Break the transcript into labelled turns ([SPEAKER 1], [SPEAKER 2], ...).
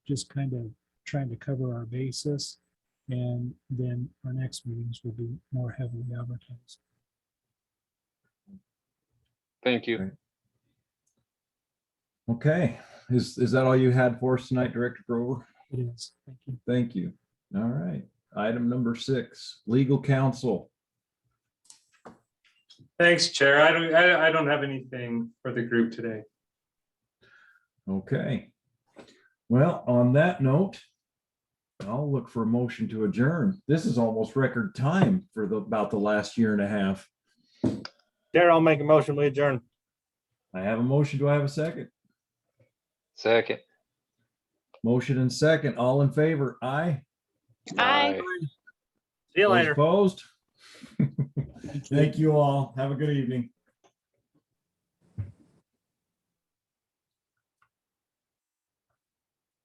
[SPEAKER 1] just kind of trying to cover our basis. And then our next meetings will be more heavily advertised.
[SPEAKER 2] Thank you.
[SPEAKER 3] Okay, is, is that all you had for us tonight, Director Grover?
[SPEAKER 1] It is, thank you.
[SPEAKER 3] Thank you. All right, item number six, legal counsel.
[SPEAKER 4] Thanks, Chair. I don't, I, I don't have anything for the group today.
[SPEAKER 3] Okay. Well, on that note, I'll look for a motion to adjourn. This is almost record time for the, about the last year and a half.
[SPEAKER 5] Chair, I'll make a motion, we adjourn.
[SPEAKER 3] I have a motion. Do I have a second?
[SPEAKER 2] Second.
[SPEAKER 3] Motion and second. All in favor? Aye.
[SPEAKER 6] Aye.
[SPEAKER 5] See you
[SPEAKER 3] Those
[SPEAKER 5] later.
[SPEAKER 3] Opposed? Thank you all. Have a good evening.